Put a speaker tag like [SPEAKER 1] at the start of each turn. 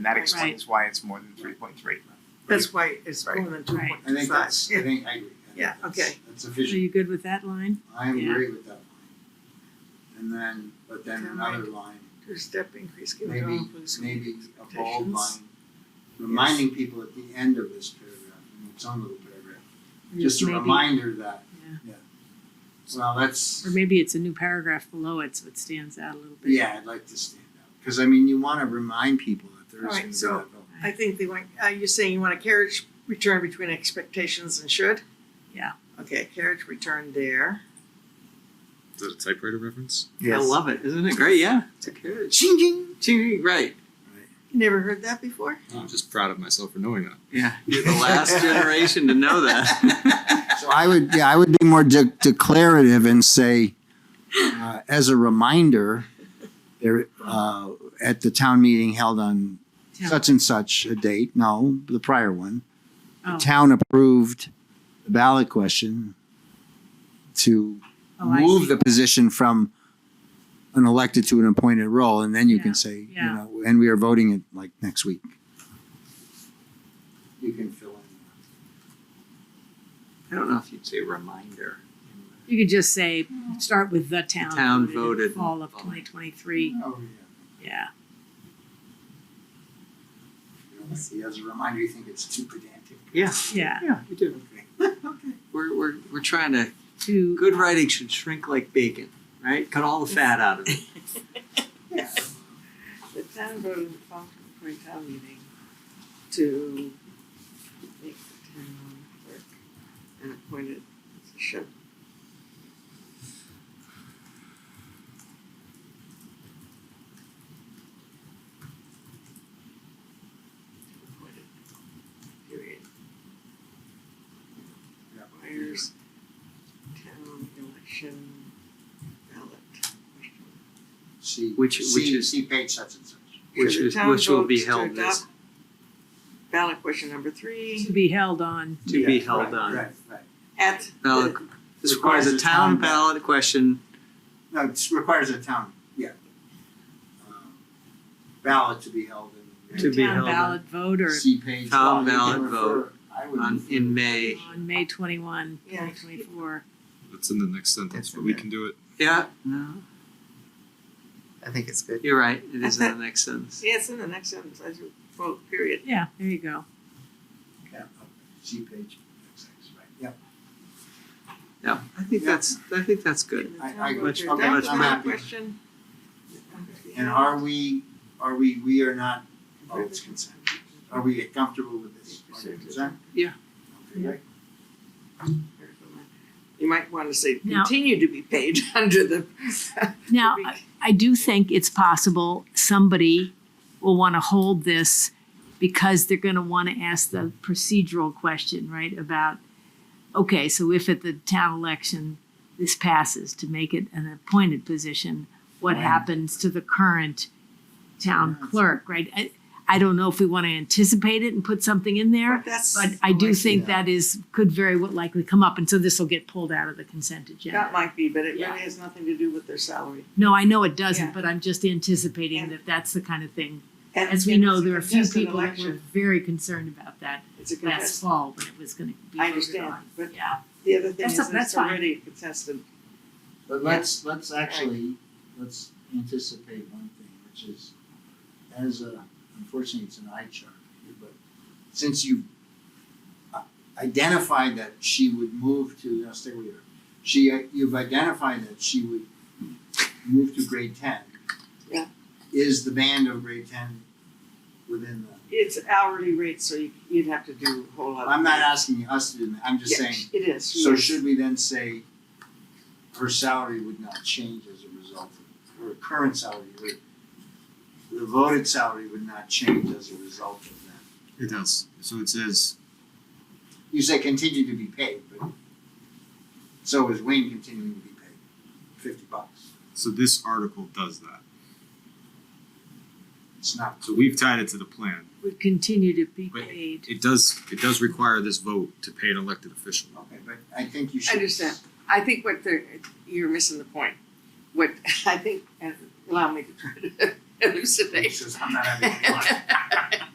[SPEAKER 1] And that explains why it's more than three point three.
[SPEAKER 2] That's why it's
[SPEAKER 1] Right.
[SPEAKER 2] more than two
[SPEAKER 3] Right.
[SPEAKER 2] point
[SPEAKER 4] I
[SPEAKER 2] two
[SPEAKER 4] think
[SPEAKER 2] five.
[SPEAKER 4] that's, I think, I agree. I think
[SPEAKER 2] Yeah,
[SPEAKER 4] that's-
[SPEAKER 2] okay.
[SPEAKER 4] That's
[SPEAKER 3] Are
[SPEAKER 4] efficient.
[SPEAKER 3] you good with that line?
[SPEAKER 4] I am
[SPEAKER 3] Yeah.
[SPEAKER 4] agree with that line. And then, but then
[SPEAKER 2] Okay,
[SPEAKER 4] another line,
[SPEAKER 2] Two-step increase given to all
[SPEAKER 4] maybe,
[SPEAKER 2] inclusive
[SPEAKER 4] maybe a bold
[SPEAKER 2] expectations.
[SPEAKER 4] line, reminding people at the end of this paragraph, in its own little paragraph, just a
[SPEAKER 3] Maybe-
[SPEAKER 4] reminder that,
[SPEAKER 3] Yeah.
[SPEAKER 4] yeah. Well, that's,
[SPEAKER 3] Or maybe it's a new paragraph below it, so it stands out a little bit.
[SPEAKER 4] yeah, I'd like to stand out, cause I mean, you wanna remind people that there is
[SPEAKER 2] All right,
[SPEAKER 4] gonna be
[SPEAKER 2] so-
[SPEAKER 4] that vote.
[SPEAKER 2] I think they want, are you saying you want a carriage return between expectations and should?
[SPEAKER 3] Yeah.
[SPEAKER 2] Okay, carriage return there.
[SPEAKER 5] Is that a typewriter reference?
[SPEAKER 6] I love it. Isn't it great? Yeah. It's a good.
[SPEAKER 4] Ching ching.
[SPEAKER 6] Ching, right.
[SPEAKER 2] You Never heard that before?
[SPEAKER 5] I'm just proud of myself for knowing that.
[SPEAKER 6] Yeah. You're the last generation to know that.
[SPEAKER 4] So I would, yeah, I would be more de- declarative and say, uh, as a reminder, there, uh, at the town meeting held on
[SPEAKER 3] Town.
[SPEAKER 4] such and such a date, no, the prior one, the
[SPEAKER 3] Oh.
[SPEAKER 4] town approved the ballot question to
[SPEAKER 3] Oh, I
[SPEAKER 4] move
[SPEAKER 3] see.
[SPEAKER 4] the position from an elected to an appointed role, and then you
[SPEAKER 3] Yeah,
[SPEAKER 4] can say, you
[SPEAKER 3] yeah.
[SPEAKER 4] know, and we are voting it like next week. You can fill in.
[SPEAKER 6] I don't know if you'd say reminder.
[SPEAKER 3] You could just say, start with the town.
[SPEAKER 6] town
[SPEAKER 3] in
[SPEAKER 6] voted.
[SPEAKER 3] Fall of twenty twenty-three,
[SPEAKER 4] Oh, yeah.
[SPEAKER 3] yeah.
[SPEAKER 4] You know, see, as a reminder, you think it's too pedantic.
[SPEAKER 6] Yeah.
[SPEAKER 3] Yeah,
[SPEAKER 6] Yeah, you do.
[SPEAKER 4] Okay.
[SPEAKER 6] We're, we're, we're trying to.
[SPEAKER 3] to.
[SPEAKER 6] Good writing should shrink like bacon, right? Cut all the fat out of it.
[SPEAKER 7] The town voted the fall twenty twenty town meeting to make the town clerk an appointed position. Appointed, Period.
[SPEAKER 4] Yeah.
[SPEAKER 7] Requires town election ballot question.
[SPEAKER 4] See,
[SPEAKER 6] Which-
[SPEAKER 4] see-
[SPEAKER 6] which is-
[SPEAKER 4] see page such and such.
[SPEAKER 6] Which
[SPEAKER 7] Should the
[SPEAKER 6] is,
[SPEAKER 7] town
[SPEAKER 6] which will be
[SPEAKER 7] vote to
[SPEAKER 6] held as,
[SPEAKER 7] adopt Ballot question number
[SPEAKER 3] To
[SPEAKER 7] three
[SPEAKER 3] be held on,
[SPEAKER 6] to be
[SPEAKER 4] Yeah,
[SPEAKER 6] held
[SPEAKER 4] right,
[SPEAKER 6] on.
[SPEAKER 4] Right, right.
[SPEAKER 7] at
[SPEAKER 6] Ballot,
[SPEAKER 7] the,
[SPEAKER 6] this requires a town ballot question
[SPEAKER 4] No, it requires a town, yeah. Um, Ballot to be held in.
[SPEAKER 6] To be
[SPEAKER 3] town
[SPEAKER 6] held on-
[SPEAKER 3] ballot vote or
[SPEAKER 4] See page. well,
[SPEAKER 6] Town
[SPEAKER 4] you can
[SPEAKER 6] ballot vote
[SPEAKER 4] refer- I would
[SPEAKER 6] on,
[SPEAKER 4] refer-
[SPEAKER 6] in May.
[SPEAKER 3] on May twenty-one,
[SPEAKER 7] Yeah.
[SPEAKER 3] twenty twenty-four.
[SPEAKER 5] That's in the next
[SPEAKER 1] It's
[SPEAKER 5] sentence, but
[SPEAKER 1] in
[SPEAKER 5] we
[SPEAKER 1] there.
[SPEAKER 5] can do it.
[SPEAKER 6] Yeah, no,
[SPEAKER 1] I think it's good.
[SPEAKER 6] you're right. It is in the next sentence.
[SPEAKER 7] yes, in the next sentence, I should vote, period.
[SPEAKER 3] Yeah, there you go.
[SPEAKER 4] Yeah, okay. See page. six, six, right. Yep.
[SPEAKER 6] Yeah, I think
[SPEAKER 4] Yeah.
[SPEAKER 6] that's, I think that's good.
[SPEAKER 7] The
[SPEAKER 4] I-
[SPEAKER 7] town
[SPEAKER 4] I-
[SPEAKER 7] vote
[SPEAKER 6] much-
[SPEAKER 7] to
[SPEAKER 6] okay,
[SPEAKER 7] adopt
[SPEAKER 6] much
[SPEAKER 7] the ballot
[SPEAKER 4] happier.
[SPEAKER 7] Question.
[SPEAKER 4] And are we, are we, we are not, oh,
[SPEAKER 7] Approve
[SPEAKER 4] it's
[SPEAKER 7] it.
[SPEAKER 4] consent. Are we comfortable with this? Are we
[SPEAKER 7] Consent.
[SPEAKER 4] consent?
[SPEAKER 6] Yeah.
[SPEAKER 4] Okay, right.
[SPEAKER 7] You might wanna say
[SPEAKER 3] Now-
[SPEAKER 7] continue to be paid under the.
[SPEAKER 3] Now, I- I do think it's possible somebody will want to hold this because they're going to want to ask the procedural question, right? About, okay, so if at the town election this passes to make it an appointed position, what
[SPEAKER 4] Right.
[SPEAKER 3] happens to the current town
[SPEAKER 4] Yes.
[SPEAKER 3] clerk, right? I, I don't know if we want to anticipate it and put something in there,
[SPEAKER 7] That's.
[SPEAKER 3] but Oh, I do
[SPEAKER 7] like,
[SPEAKER 3] think
[SPEAKER 4] Yeah.
[SPEAKER 3] that is, could very well likely come up. And so this will get pulled out of the consent agenda.
[SPEAKER 7] That might be, but it
[SPEAKER 3] Yeah.
[SPEAKER 7] really has nothing to do with their salary.
[SPEAKER 3] No, I know it doesn't,
[SPEAKER 7] Yeah.
[SPEAKER 3] but I'm just anticipating
[SPEAKER 7] And-
[SPEAKER 3] that that's the kind of thing.
[SPEAKER 7] And-
[SPEAKER 3] As we
[SPEAKER 7] and
[SPEAKER 3] know,
[SPEAKER 7] it's a
[SPEAKER 3] there are a few
[SPEAKER 7] contested
[SPEAKER 3] people that were
[SPEAKER 7] election.
[SPEAKER 3] very concerned about that
[SPEAKER 7] It's a
[SPEAKER 3] last
[SPEAKER 7] contest,
[SPEAKER 3] fall when it was going to be.
[SPEAKER 7] I
[SPEAKER 3] voted
[SPEAKER 7] understand,
[SPEAKER 3] on.
[SPEAKER 7] but
[SPEAKER 3] Yeah,
[SPEAKER 7] the other thing
[SPEAKER 3] That's
[SPEAKER 7] is
[SPEAKER 3] not- that's
[SPEAKER 7] it's
[SPEAKER 3] fine.
[SPEAKER 7] already contested.
[SPEAKER 4] But let's, let's actually, let's anticipate one thing, which is, as a, unfortunately, it's an eye chart here, but since you uh, identified that she would move to, now stay where you are, she, uh, you've identified that she would move to grade ten.
[SPEAKER 7] Yeah.
[SPEAKER 4] Is the band of grade ten within the,
[SPEAKER 7] It's hourly rate, so you- you'd have to do a whole lot. of
[SPEAKER 4] I'm not
[SPEAKER 7] things.
[SPEAKER 4] asking us to do that, I'm just
[SPEAKER 7] Yeah,
[SPEAKER 4] saying,
[SPEAKER 7] It is.
[SPEAKER 4] So
[SPEAKER 7] yes.
[SPEAKER 4] should we then say her salary would not change as a result of, her current salary, her, the voted salary would not change as a result of that?
[SPEAKER 5] It does. So it says
[SPEAKER 4] You say continue to be paid, but so is Wayne continuing to be paid, fifty bucks.
[SPEAKER 5] so this article does that.
[SPEAKER 4] It's not,
[SPEAKER 5] So we've tied it to the plan.
[SPEAKER 3] would continue to be
[SPEAKER 5] Wait.
[SPEAKER 3] paid.
[SPEAKER 5] It does it does require this vote to pay an elected official.
[SPEAKER 4] okay, but I think you
[SPEAKER 7] I
[SPEAKER 4] should.
[SPEAKER 7] understand. I think what the, you're missing the point. What I think, and allow uh, me to try to
[SPEAKER 8] hallucination.
[SPEAKER 4] Says I'm not having any fun.